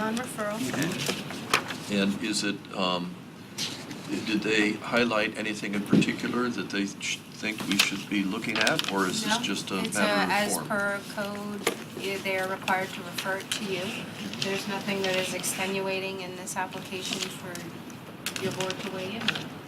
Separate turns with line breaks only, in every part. on referral.
And is it, um, did they highlight anything in particular that they sh- think we should be looking at? Or is this
No,
just a
it's uh,
matter of
As
form?
per code, i- they are required to refer it to you. There's nothing that is extenuating in this application for your board to weigh in.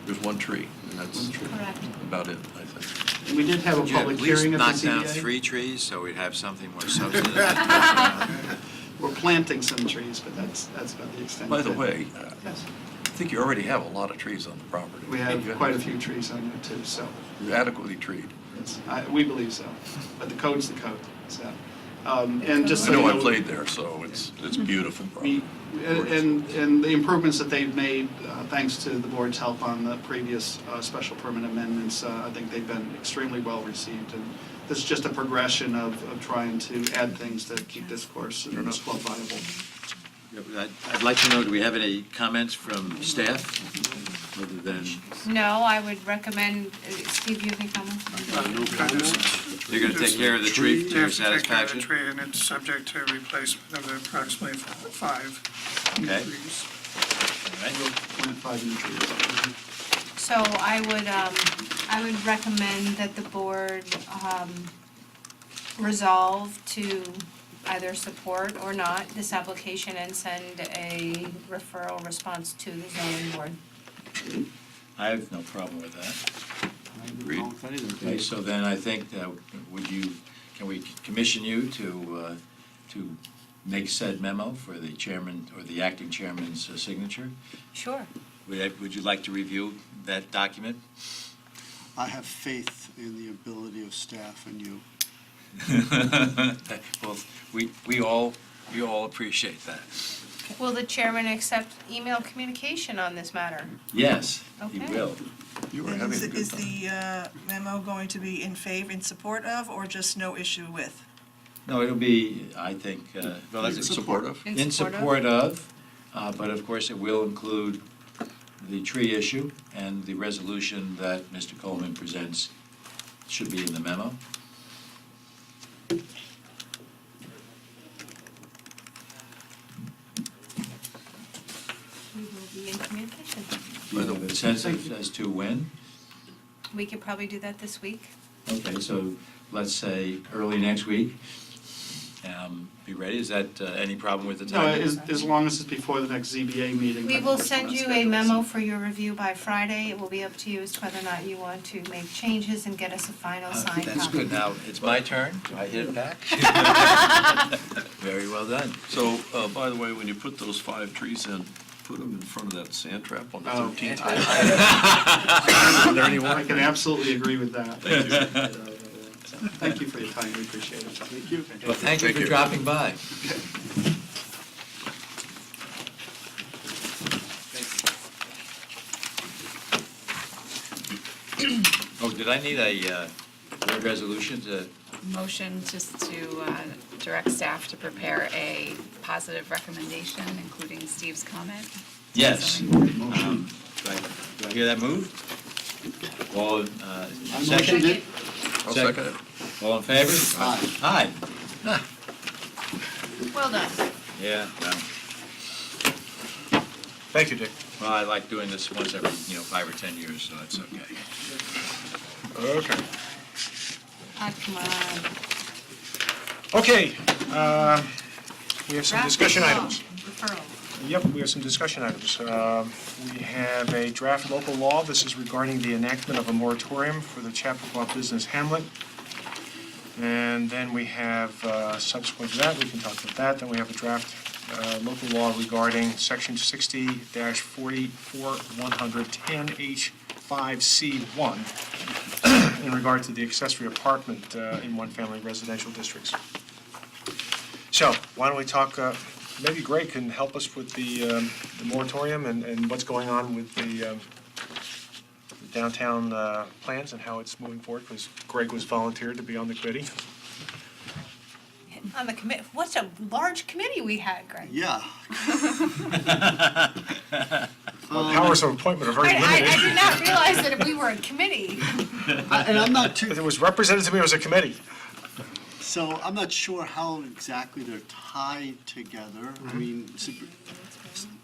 There's one tree, and that's
Correct.
about it, I think.
And we did have a
Could you at
public
least
hearing of the
knock down
CBA.
three trees, so we'd have something more substantive?
We're planting some trees, but that's, that's about the extent.
By the
of it.
way, uh,
Yes,
I think you already have a lot of trees on the property.
we
You
have quite a few trees on there too, so,
You're adequately treed.
yes, I, we believe so. But the code's the code, so. Um, and just
I
so you
know
know.
I played there, so it's, it's beautiful.
We,
property.
and, and the improvements that they've made, uh, thanks to the board's help on the previous uh, special permit amendments, uh, I think they've been extremely well received. And this is just a progression of, of trying to add things that keep this course and this club viable.
I'd I'd like to know, do we have any comments from staff, other than,
No, I would recommend, uh, Steve, you have any comments?
No comments.
you're going to take care of the tree to your
Yes, take care of the
satisfaction?
tree, and it's subject to replacement of the approximately f- five new
Okay.
trees.
All right.
Point five new trees.
So I would, um, I would recommend that the board, um, resolve to either support or not this application and send a referral response to the zoning board.
I have no problem with that.
Agreed.
Okay, so then I think, that would you, can we commission you to, uh, to make said memo for the chairman, or the acting chairman's uh, signature?
Sure.
Would I- Would you like to review that document?
I have faith in the ability of staff and you.
Well, we, we all, we all appreciate that.
Will the chairman accept email communication on this matter?
Yes, he
Okay.
will.
You were
And
having a
Is
good
is
time.
the uh, memo going to be in favor, in support of, or just no issue with?
No, it'll be, I think, uh,
Well, that's supportive.
In
in
support of?
support of, uh, but of course, it will include the tree issue and the resolution that Mr. Coleman presents should be in the memo.
We will be in communication.
Do you have a sense of- as to when?
We could probably do that this week.
Okay, so let's say early next week. Um, Be ready, is that uh, any problem with the
No,
timing?
as, as long as it's before the next ZBA meeting. I
We
think
will
that's
send
when it's
you a
scheduled, so.
memo for your review by Friday. It will be up to you as to whether or not you want to make changes and get us a final
Uh,
signed copy.
That's good. Now, it's my turn. Do I hit it back? Very well done.
So, uh, by the way, when you put those five trees in, put them in front of that sand trap on the
Oh,
13th.
I-
hole.
I- I can absolutely agree with that. Thank you for your time, we appreciate it. Thank you.
Well, thank you for dropping by. Oh, did I need a uh, board resolution to,
Motion just to uh, direct staff to prepare a positive recommendation, including Steve's comment.
yes.
Zoning board.
Um, Do I do I hear that move? All, uh,
I motioned
second?
it.
I'll second it.
All in favor? Aye.
Well done.
Yeah, well,
Thank you, Dick.
well, I like doing this once every, you know, five or 10 years, so it's okay.
Okay.
Ah, come on.
Okay, uh, we have some
Draft
discussion
law,
items.
Referral.
Yep, we have some discussion items. Um, We have a draft local law. This is regarding the enactment of a moratorium for the Chappaqua Business Hamlet. And then we have, uh, subsequent to that, we can talk about that, then we have a draft uh, local law regarding Section 60-44-110H5C1 in regard to the accessory apartment uh, in one-family residential districts. So, why don't we talk, uh, maybe Greg can help us with the um, the moratorium and and what's going on with the um, the downtown uh, plans and how it's moving forward, because Greg was volunteered to be on the committee.
On the commit, what's a large committee we had, Greg?
Yeah.
Our Powers of appointment are
I,
very
I, I
limited.
did not realize that we were a committee.
And I'm not too,
It was represented to me as a committee. So I'm not sure how exactly they're tied together. I mean, sup-